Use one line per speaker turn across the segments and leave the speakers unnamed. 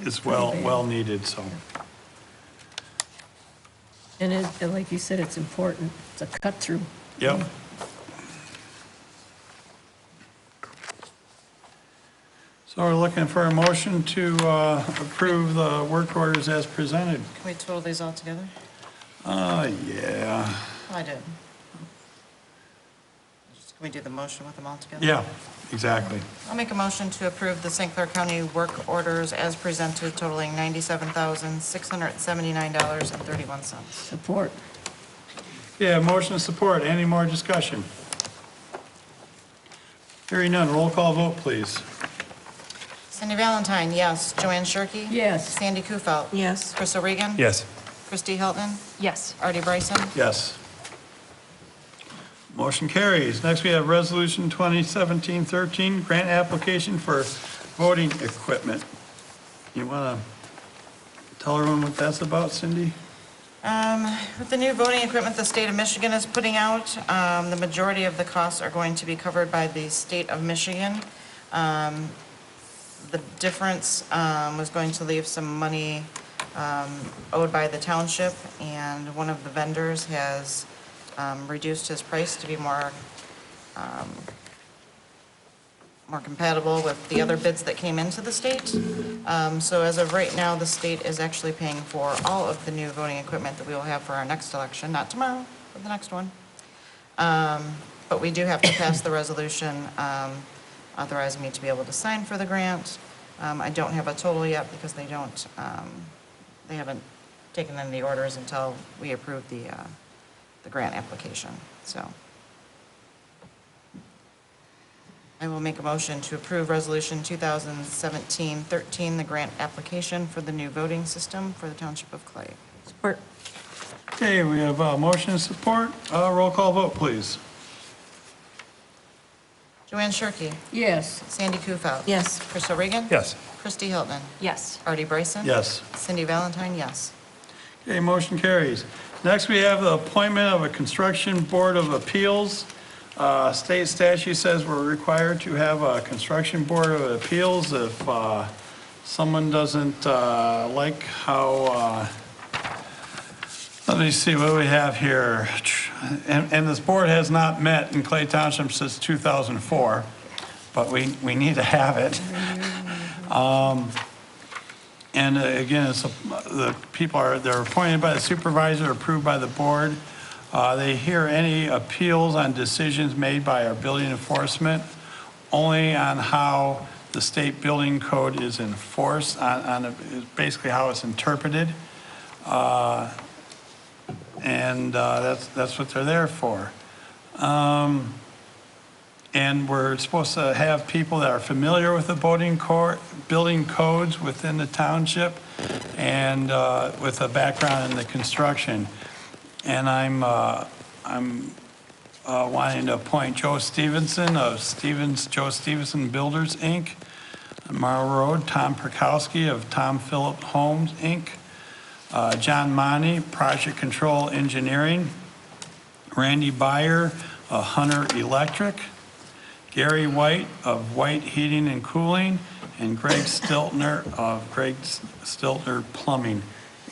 is well, well needed, so.
And it, and like you said, it's important. It's a cut-through.
Yep. So we're looking for a motion to uh, approve the work orders as presented.
Can we total these all together? Oh,
Uh, yeah,
I did. Just- Can we do the motion with them all together?
yeah, exactly.
I'll make a motion to approve the St. Clair County work orders as presented totaling $97,679.31.
Support.
Yeah, motion and support. Any more discussion? Hearing none. Roll call vote, please.
Cindy Valentine, yes. Joanne Shirkey?
Yes.
Sandy Kufelt?
Yes.
Crystal Regan?
Yes.
Christie Hilton?
Yes.
Artie Bryson?
Yes. Motion carries. Next, we have Resolution 2017-13, grant application for voting equipment. You want to tell everyone what that's about, Cindy?
Um, With the new voting equipment the state of Michigan is putting out, um, the majority of the costs are going to be covered by the state of Michigan. Um, The difference um, was going to leave some money um, owed by the township, and one of the vendors has um, reduced his price to be more, um, more compatible with the other bids that came into the state. Um, So as of right now, the state is actually paying for all of the new voting equipment that we will have for our next election, not tomorrow, but the next one. Um, But we do have to pass the resolution um, authorizing me to be able to sign for the grant. Um, I don't have a total yet because they don't, um, they haven't taken in the orders until we approve the, uh, the grant application, so. I will make a motion to approve Resolution 2017-13, the grant application for the new voting system for the Township of Clay.
Support.
Okay, we have uh, motion and support. Uh, Roll call vote, please.
Joanne Shirkey.
Yes.
Sandy Kufal.
Yes.
Crystal Regan.
Yes.
Christie Hilton.
Yes.
Artie Bryson.
Yes.
Cindy Valentine, yes.
Okay, motion carries. Next, we have the appointment of a Construction Board of Appeals. Uh, State statute says we're required to have a Construction Board of Appeals if uh, someone doesn't uh, like how, uh, let me see what we have here. And and this board has not met in Clay Township since 2004, but we we need to have it. And uh, again, it's, a- the people are, they're appointed by the supervisor, approved by the board. Uh, They hear any appeals on decisions made by our building enforcement, only on how the state building code is enforced, on, on basically how it's interpreted. Uh, And uh, that's, that's what they're there for. And we're supposed to have people that are familiar with the voting court, building codes within the township and uh, with a background in the construction. And I'm, uh, I'm uh, wanting to appoint Joe Stevenson of Stevens, Joe Stevenson Builders, Inc., on Marl Road, Tom Perkowski of Tom Phillip Homes, Inc., uh, John Monty, Project Control Engineering, Randy Byer of Hunter Electric, Gary White of White Heating and Cooling, and Greg Stiltner of Greg Stiltner Plumbing.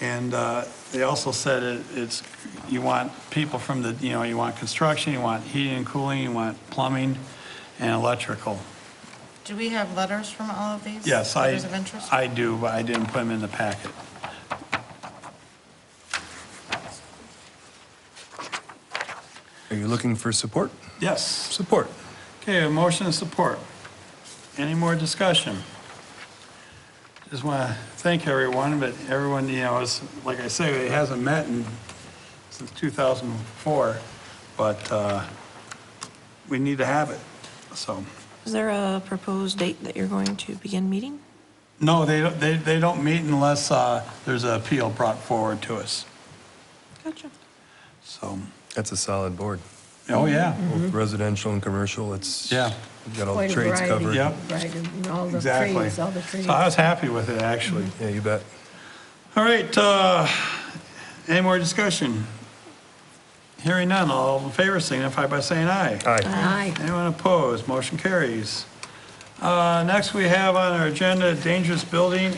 And uh, they also said it- it's, you want people from the, you know, you want construction, you want heating and cooling, you want plumbing and electrical.
Do we have letters from all of these?
Yes, I,
Letters of interest?
I do, but I didn't put them in the packet.
Are you looking for support?
Yes.
Support.
Okay, a motion and support. Any more discussion? Just want to thank everyone, but everyone, you know, is, like I say, it hasn't met in, since 2004, but uh, we need to have it, so.
Is there a proposed date that you're going to begin meeting?
No, they, don't- they, they don't meet unless uh, there's an appeal brought forward to us,
Gotcha.
so,
That's a solid board.
oh, yeah.
Both residential and commercial, it's.
Yeah.
You've got all the
Mm-hmm. Quite a
trades
variety.
covered.
Yep.
Right, and all the
Exactly.
trades, all the trades.
So I was happy with it, actually.
Yeah, you bet.
All right, uh, any more discussion? Hearing none, all in favor signify by saying aye.
Aye.
Aye.
Anyone opposed, motion carries. Uh, Next, we have on our agenda dangerous building